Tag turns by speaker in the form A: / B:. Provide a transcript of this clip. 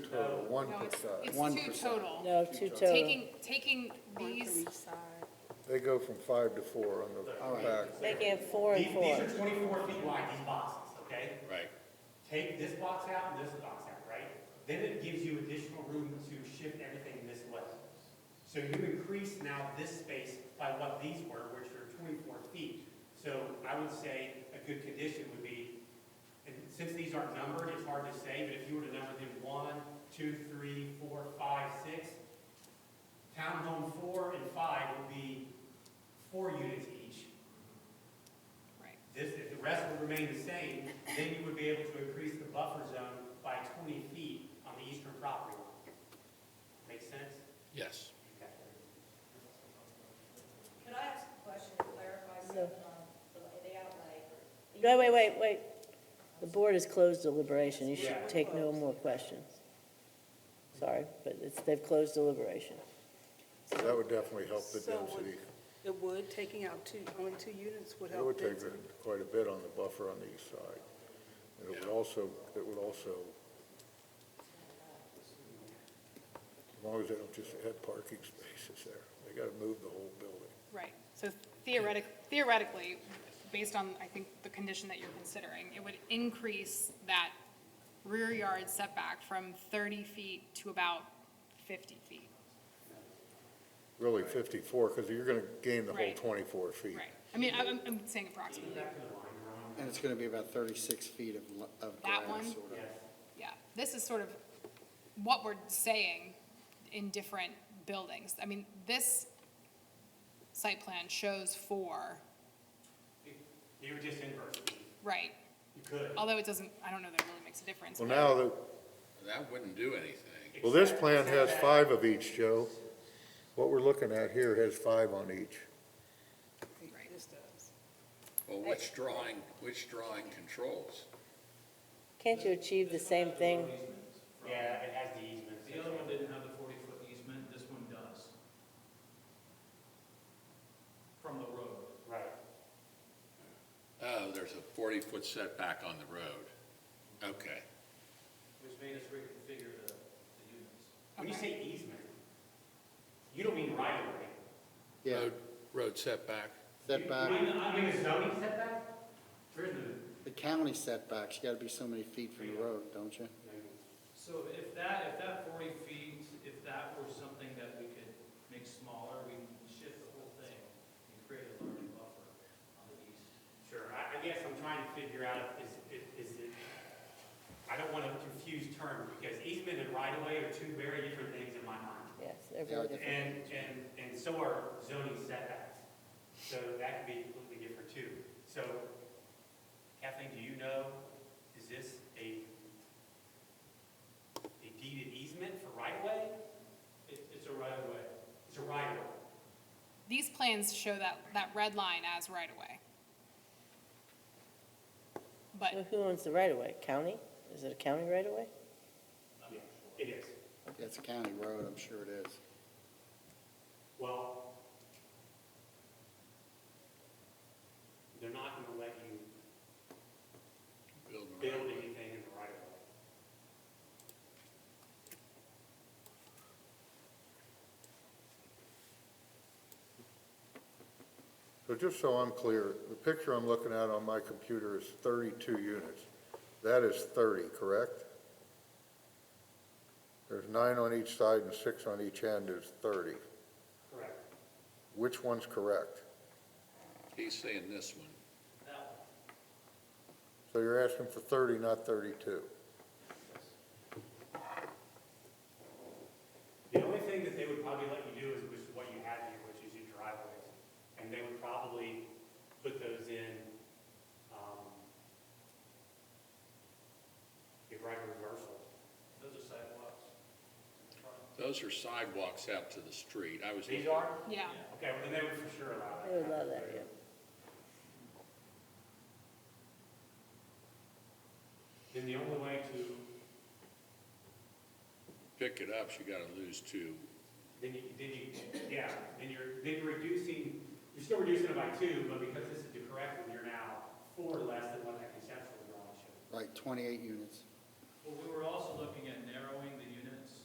A: uh, one
B: No, it's,
A: per side.
B: it's two total.
C: No, two total.
B: Taking, taking these,
A: They go from five to four on the back.
C: Making it four and
D: These, these
C: four.
D: are twenty-four feet wide, these boxes, okay?
E: Right.
D: Take this box out and this box out, right? Then it gives you additional room to shift everything this way. So you increase now this space by what these were, which are twenty-four feet. So I would say a good condition would be, and since these aren't numbered, it's hard to say, but if you were to number them one, two, three, four, five, six, townhome four and five would be four units each.
B: right,
D: This, if the rest would remain the same, then you would be able to increase the buffer zone by twenty feet on the eastern property line. Make sense?
E: Yes.
F: Could I ask a question to clarify something on the the outlay?
C: No, wait, wait, wait. The board has closed deliberation. You should take no more questions. Sorry, but it's, they've closed deliberation.
A: That would definitely help the
G: So would-
A: density.
G: It would, taking out two, only two units would
A: It would
G: help
A: take
G: density.
A: a- quite a bit on the buffer on the east side. And it would also, it would also, as long as they don't just add parking spaces there, they gotta move the whole building.
B: right. So theoretic, theoretically, based on, I think, the condition that you're considering, it would increase that rear yard setback from thirty feet to about fifty feet,
A: Really fifty-four, because you're gonna gain the whole
B: Right.
A: twenty-four feet.
B: right? I mean, I'm, I'm- I'm saying approximately,
H: And it's gonna be about thirty-six feet of, lo- of
B: That
H: grass,
B: one?
H: sort of.
B: yeah. This is sort of what we're saying in different buildings. I mean, this site plan shows four,
D: You would just invert it.
B: right?
D: You could.
B: Although it doesn't, I don't know that it really makes a difference.
A: Well,
B: but-
A: now that,
E: That wouldn't do anything.
A: well, this plan has five of each, Joe. What we're looking at here has five on each.
G: This does.
E: Well, which drawing, which drawing controls?
C: Can't you achieve the same thing?
D: Yeah, it has the easement.
I: The other one didn't have the forty-foot easement, this one does. From the road.
D: Right.
E: Oh, there's a forty-foot setback on the road. Okay.
I: Which made us reconfigure the, the units.
D: When you say easement, you don't mean right of way.
H: Yeah,
E: Road- Road setback.
D: You
H: setback,
D: mean, uh, you mean the zoning setback? There is no,
H: the county setbacks, you gotta be so many feet from the road, don't you?
I: So if that, if that forty feet, if that were something that we could make smaller, we can shift the whole thing and create a larger buffer on the east.
D: Sure, I, I guess I'm trying to figure out if, is, is it, I don't want to confuse terms because easement and right of way are two very different things in my mind.
C: Yes, they're very different.
D: And, and, and so are zoning setbacks. So that can be completely different too. So Kathleen, do you know, is this a, a deeded easement for right of way?
I: It, it's a right of way.
D: It's a right of way.
B: These plans show that, that red line as right-of-way.
C: Well,
B: But,
C: Who owns the right-of-way? County? Is it a county right-of-way?
D: It is.
H: It's a county road, I'm sure it is.
D: Well, they're not gonna let you
E: Build a
D: build
E: road.
D: anything in the right of way.
A: So just so I'm clear, the picture I'm looking at on my computer is thirty-two units. That is thirty, correct? There's nine on each side and six on each end is thirty.
D: Correct.
A: Which one's correct?
E: He's saying this one.
I: That,
A: So you're asking for thirty, not thirty-two.
D: The only thing that they would probably let you do is, which is what you have here, which is your driveways. And they would probably put those in, um, your right of reversal.
I: those are sidewalks.
E: Those are sidewalks out to the street. I was.
D: These
E: looking-
D: are?
B: yeah,
D: Okay, well, then they would for sure allow that.
C: They would allow that, yeah.
D: Then the only way to,
E: Pick it up, you gotta lose two.
D: then you, then you, yeah, then you're, then you're reducing, you're still reducing it by two, but because this is the correct one, you're now four less than what that conceptual drawing showed.
H: Like twenty-eight units.
I: Well, we were also looking at narrowing